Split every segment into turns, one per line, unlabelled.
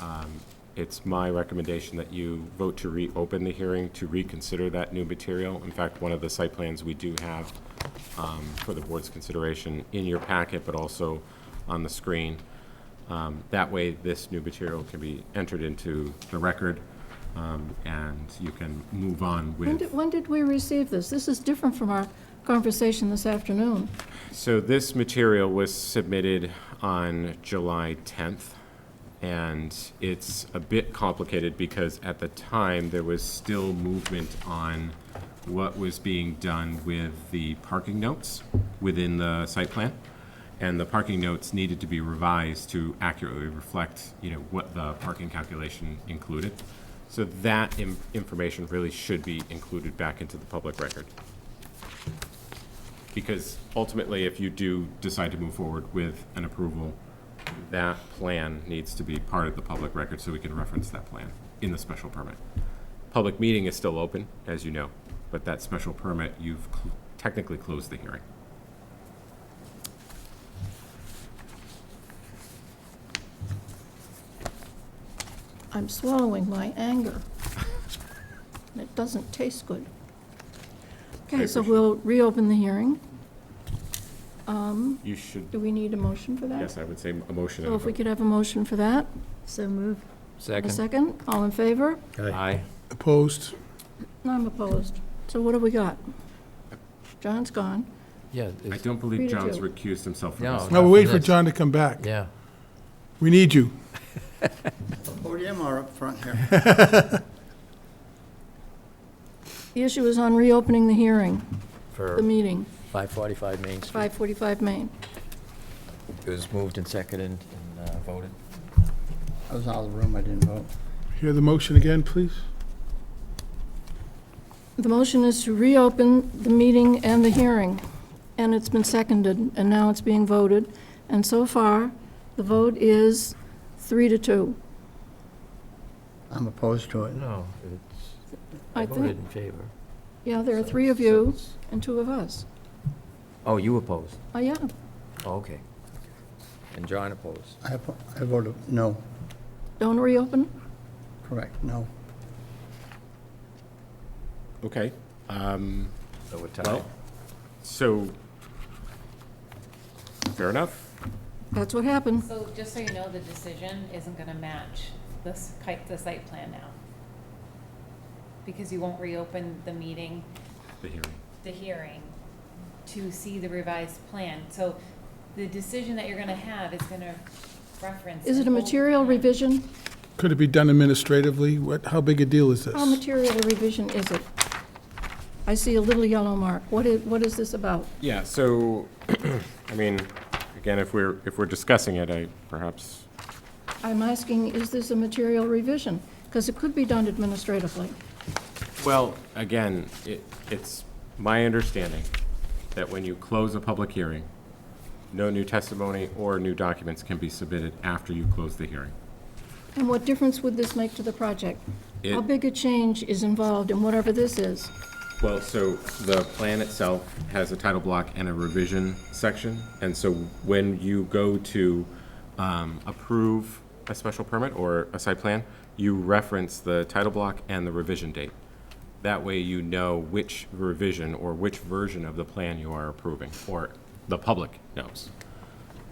Um, It's my recommendation that you vote to reopen the hearing to reconsider that new material. In fact, one of the site plans we do have um, for the board's consideration in your packet, but also on the screen. Um, That way, this new material can be entered into the record, um, and you can move on
When
with.
did, when did we receive this? This is different from our conversation this afternoon.
So this material was submitted on July 10th, and it's a bit complicated because at the time, there was still movement on what was being done with the parking notes within the site plan. And the parking notes needed to be revised to accurately reflect, you know, what the parking calculation included. So that im- information really should be included back into the public record. Because ultimately, if you do decide to move forward with an approval, that plan needs to be part of the public record, so we can reference that plan in the special permit. Public meeting is still open, as you know, but that special permit, you've cl- technically closed the hearing.
I'm swallowing my anger. And It doesn't taste good. Okay,
appreciate
so
it.
we'll reopen the hearing. Um,
You should,
Do we need a motion for that?
yes, I would say a motion. and
So
a
if we
vote.
could have a motion for that?
So move.
A second? All in favor?
Aye.
Opposed?
No, I'm opposed. So what do we got? John's gone.
Yeah,
I
it's,
don't believe
Rita
John's
too.
recused himself from
No.
this.
Now, we're waiting for
Yes.
John to come back.
yeah.
We need you.
podium or up front here?
The issue is on reopening the hearing,
For
the meeting,
545 Main Street.
545 Main.
It was moved and seconded and uh, voted.
I was out of the room, I didn't vote.
Hear the motion again, please?
The motion is to reopen the meeting and the hearing, and it's been seconded, and now it's being voted. And so far, the vote is three to two.
I'm opposed to it.
No, it's, I
I
voted
think,
in favor.
yeah, there are three of you and two of us.
Oh, you opposed?
Oh, yeah,
Oh, okay. And John opposed.
I oppo- I voted no,
don't reopen?
correct, no.
Okay. Um,
So we're tied.
Well, so, fair enough.
That's what happened.
So just so you know, the decision isn't gonna match this kite, the site plan now. Because you won't reopen the meeting,
The hearing.
the hearing, to see the revised plan. So the decision that you're gonna have is gonna reference.
Is it a
an old
material
plan.
revision?
Could it be done administratively? What, how big a deal is
How
this?
material a revision is it? I see a little yellow mark. What is, what is this about?
Yeah, so, I mean, again, if we're, if we're discussing it, I perhaps,
I'm asking, is this a material revision? Because it could be done administratively.
well, again, it, it's my understanding that when you close a public hearing, no new testimony or new documents can be submitted after you close the hearing.
And what difference would this make to the project? How
It-
big a change is involved in whatever this is?
Well, so the plan itself has a title block and a revision section, and so when you go to um, approve a special permit or a site plan, you reference the title block and the revision date. That way you know which revision or which version of the plan you are approving, or the public knows.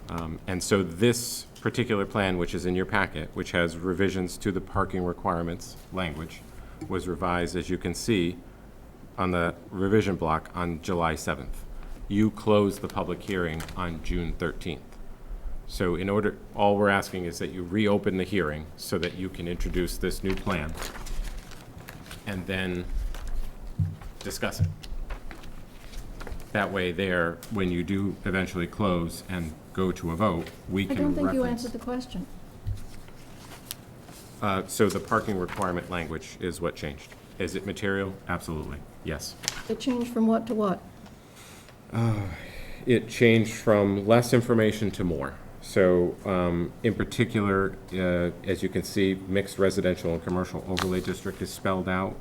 Um, And so this particular plan, which is in your packet, which has revisions to the parking requirements language, was revised, as you can see, on the revision block on July 7th. You closed the public hearing on June 13th. So in order, all we're asking is that you reopen the hearing so that you can introduce this new plan and then discuss it. That way there, when you do eventually close and go to a vote, we
I
can
don't
reference.
think you answered the question.
Uh, So the parking requirement language is what changed. Is it material? Absolutely, yes.
It changed from what to what?
it changed from less information to more. So, um, in particular, uh, as you can see, mixed residential and commercial overlay district is spelled out.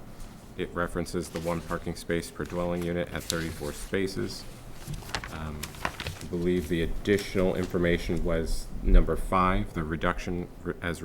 It references the one parking space per dwelling unit at thirty-four spaces. Um, I believe the additional information was number five, the reduction re- as